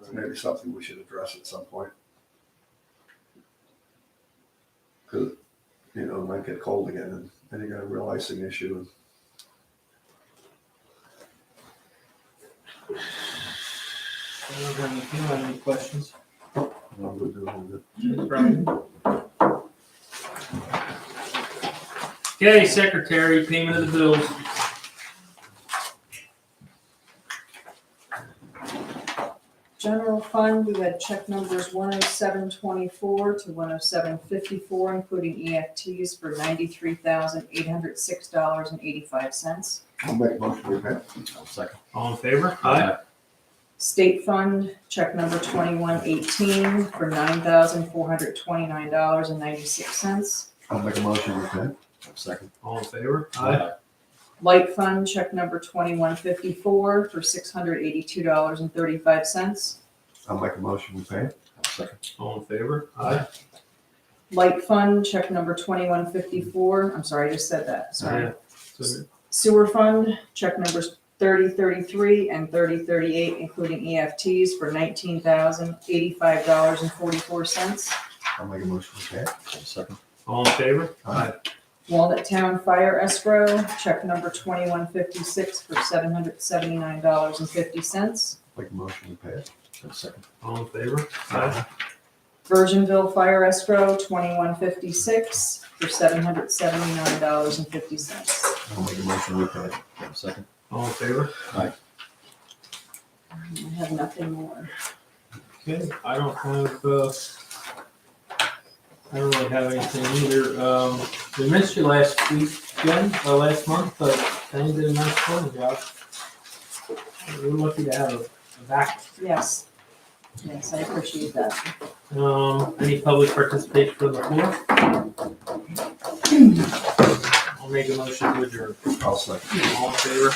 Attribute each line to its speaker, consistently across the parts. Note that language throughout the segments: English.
Speaker 1: It's maybe something we should address at some point. Cause, you know, it might get cold again and then you got a real icing issue.
Speaker 2: Anyone if you have any questions?
Speaker 1: and I'm gonna do all the-
Speaker 2: Brian? Okay, secretary, payment of the bills.
Speaker 3: General fund, we had check numbers one oh seven twenty-four to one oh seven fifty-four, including EFTs for ninety-three thousand eight hundred six dollars and eighty-five cents.
Speaker 1: I'll make motion to pay.
Speaker 4: I'll second.
Speaker 2: All in favor?
Speaker 3: State fund, check number twenty-one eighteen for nine thousand four hundred twenty-nine dollars and ninety-six cents.
Speaker 1: I'll make a motion to pay.
Speaker 4: I'll second.
Speaker 2: All in favor?
Speaker 3: Light fund, check number twenty-one fifty-four for six hundred eighty-two dollars and thirty-five cents.
Speaker 1: I'll make a motion to pay.
Speaker 4: I'll second.
Speaker 2: All in favor? Aye.
Speaker 3: Light fund, check number twenty-one fifty-four, I'm sorry, I just said that, sorry.
Speaker 2: So,
Speaker 3: Sewer fund, check numbers thirty thirty-three and thirty thirty-eight, including EFTs for nineteen thousand eighty-five dollars and forty-four cents.
Speaker 1: I'll make a motion to pay.
Speaker 4: I'll second.
Speaker 2: All in favor?
Speaker 1: Aye.
Speaker 3: Walnut Town Fire Escrow, check number twenty-one fifty-six for seven hundred seventy-nine dollars and fifty cents.
Speaker 1: Make a motion to pay.
Speaker 4: I'll second.
Speaker 2: All in favor? Aye.
Speaker 3: Virginville Fire Escrow, twenty-one fifty-six for seven hundred seventy-nine dollars and fifty cents.
Speaker 1: I'll make a motion to pay.
Speaker 4: I'll second.
Speaker 2: All in favor?
Speaker 3: I have nothing more.
Speaker 2: Okay, I don't have, uh, I don't really have anything either. Um, we missed you last week, Jen, or last month, but Diane did a nice phone job. We're lucky to have a a back.
Speaker 3: Yes, yes, I appreciate that.
Speaker 2: Um, any public participation from the floor? I'll make a motion to adjourn.
Speaker 1: I'll second.
Speaker 2: All in favor?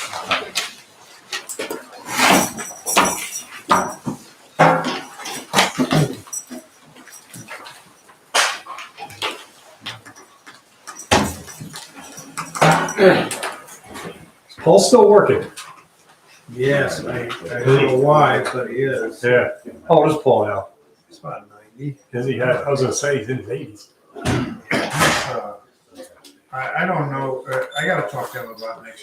Speaker 5: Paul's still working.
Speaker 6: Yes, I, I don't know why, but he is.
Speaker 5: Yeah. How old is Paul now?
Speaker 6: It's about ninety.
Speaker 5: Is he? I was gonna say he's in his eighties.
Speaker 6: Uh, I, I don't know, uh, I gotta talk to him about next